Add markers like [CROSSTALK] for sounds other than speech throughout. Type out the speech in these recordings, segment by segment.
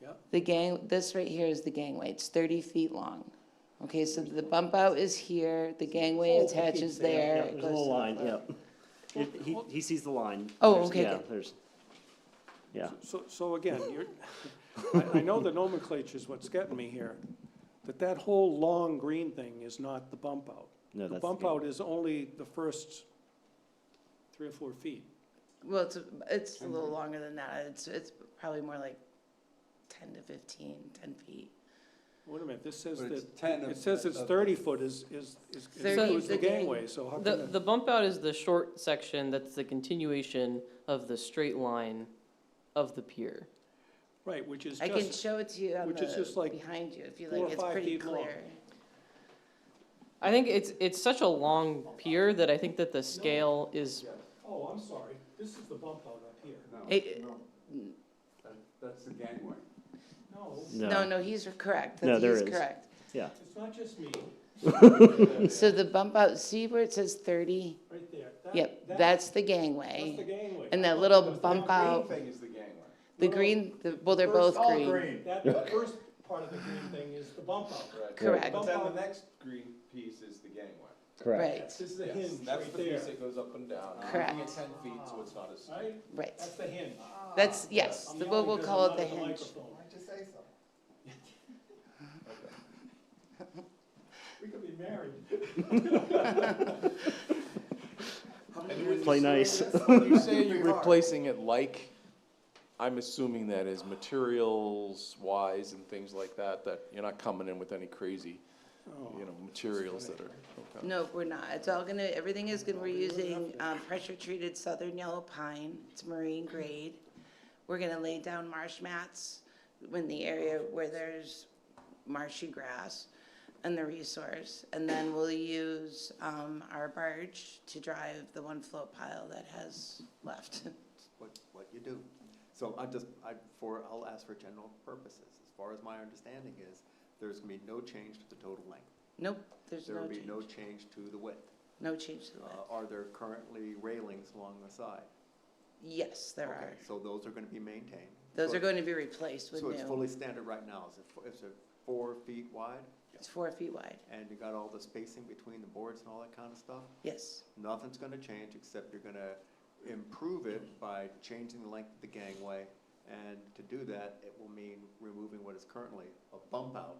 Yep. The gang, this right here is the gangway, it's thirty feet long. Okay, so the bump out is here, the gangway Oh, attaches okay, there, there. yeah, it There's a goes little to the line, front. yep. It- He, he sees the line. Oh, There's- okay, yeah, good. There's, yeah. So, so again, you're, I, I know the nomenclature's what's getting me here, but that whole long green thing is not the bump out. No, The that's bump good. out is only the first three or four feet. Well, it's, it's a little longer than that, it's, it's probably more like ten to 15, 10 feet. Wait a minute, this says But it's that, 10 of it says it's that- thirty foot is, is, is Thirty includes is the the gang- gangway, so how The, can the bump out is the short section that's the continuation of the straight line of the pier. Right, which is I can just, show it to you on which is just the, like behind you, if you four or like, it's five pretty feet long. clear. I think it's, it's such a long pier that I think that the scale is, oh, I'm sorry, this is the bump out up here. No, It- no, that- That's the gangway. No, No, no, he's correct, No, That's- there he's is. correct. Yeah, it's not just [LAUGHS] me, So the bump out, see where it says thirty? right there. That- Yep, that- that's the That's the gangway. gangway. And that little Because the bump green out, Thing is the gangway. the No, no. green, the- well, they're both First, all green. That, that first part of the green thing is the bump out. Right. Correct. But then the next green piece is the gangway. correct. Right, This is the Yes, hinge That's right the piece there, that goes up and down. I'm Correct. looking at ten feet, so it's not as. right? right. That's the hinge. That's, yes, Uh, I'm the- yelling we'll, we'll because call I'm it not the at hinge. microphone. Why'd you say so? We could be married. Play nice. [LAUGHS] When you say you're replacing it like, I'm assuming that is materials wise and things like that, that you're not coming in with any crazy, Oh. you know, materials that are. okay. No, we're not. It's all gonna, everything is gonna, we're using, um, pressure-treated southern yellow pine. It's marine grade. We're gonna lay down marsh mats in the area where there's marshy grass and the resource. And then we'll use, um, our barge to drive the one float pile that has left. [LAUGHS] what, what you do. So I just, I, for, I'll ask for general purposes. As far as my understanding is, there's gonna be no change to the total length. Nope, there's There no will be no change. change to the width. No change to Uh, that. Are there currently railings along the side? Yes, there Okay, are. So those are gonna be maintained. Those So- are going to be replaced with So it's new. fully standard right now. Is it, fo- is it four feet wide? It's four feet wide. And you got all the spacing between the boards and all that kind of stuff? Yes, Nothing's gonna change, except you're gonna improve it by changing the length of the gangway. And to do that, it will mean removing what is currently a bump out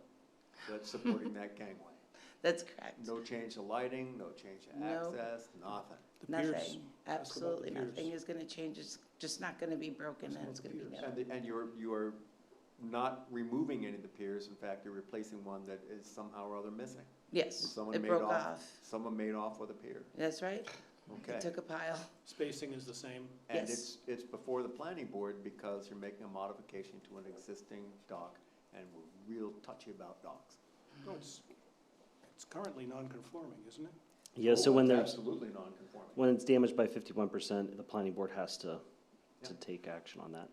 that's supporting [LAUGHS] that gangway. that's correct. No change to lighting, no change to No. access, nothing. The piers. Nothing, absolutely piers. nothing is gonna change, it's just not gonna be broken and it's gonna be And, new. the- and you're, you're not removing any of the piers, in fact, you're replacing one that is somehow or other missing. Yes, Someone it made broke off. off, Someone made off with a pier, that's right, okay? it took a pile, Spacing is the same. And Yes. it's, it's before the planning board because you're making a modification to an existing dock, and we're real touchy about docks. No, it's, it's currently non-conforming, isn't it? [LAUGHS] Yeah, so when Oh, it's there's, Absolutely non-conforming. when it's damaged by fifty-one percent, the planning board has to, to Yeah. take action on that,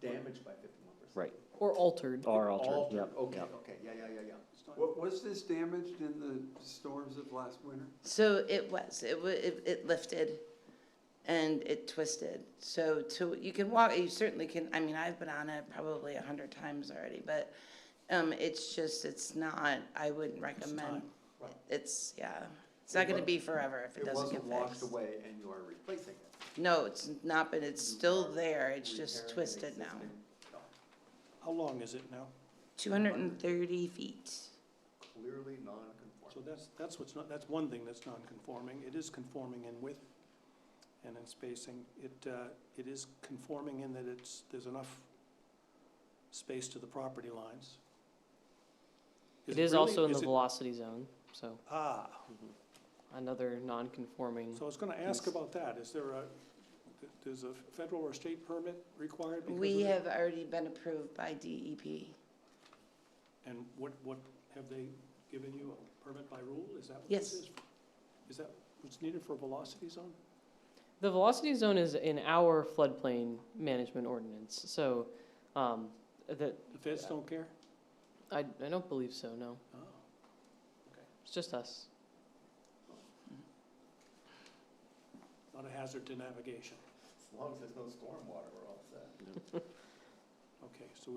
Damaged by fifty-one percent. right, or altered. or altered, yep, Okay, yep. okay, yeah, yeah, yeah, yeah. It's not- What, was this damaged in the storms of last winter? so it was, it wa, it, it lifted and it twisted, so to, you can walk, you certainly can, I mean, I've been on it probably a hundred times already, but, um, it's just, it's not, I wouldn't recommend, time, it's, yeah, it's not gonna be forever if it It doesn't get wasn't fixed. washed away and you are replacing it. No, it's not, but it's still there, it's just Repairing an twisted now. existing dock. How long is it now? Two hundred and thirty feet. Clearly So non-conforming. that's, that's what's not, that's one thing that's non-conforming. It is conforming in width and in spacing. It, uh, it is conforming in that it's, there's enough space to the property lines. It is really- also in the is it- velocity zone, so Ah, another non-conforming. so I was gonna ask about that. Is there a, th- there's a federal or state permit required? because We of it? have already been approved by E DEP. And what, what, have they given you a permit by rule? Is that what Yes. this is? Is that what's needed for a velocity zone? The velocity zone is in our floodplain management ordinance, so, um, that, The feds don't care? I, I don't believe so, no. Oh, It's just us. not a hazard to navigation. As long as there's no stormwater, we're all set. Okay, so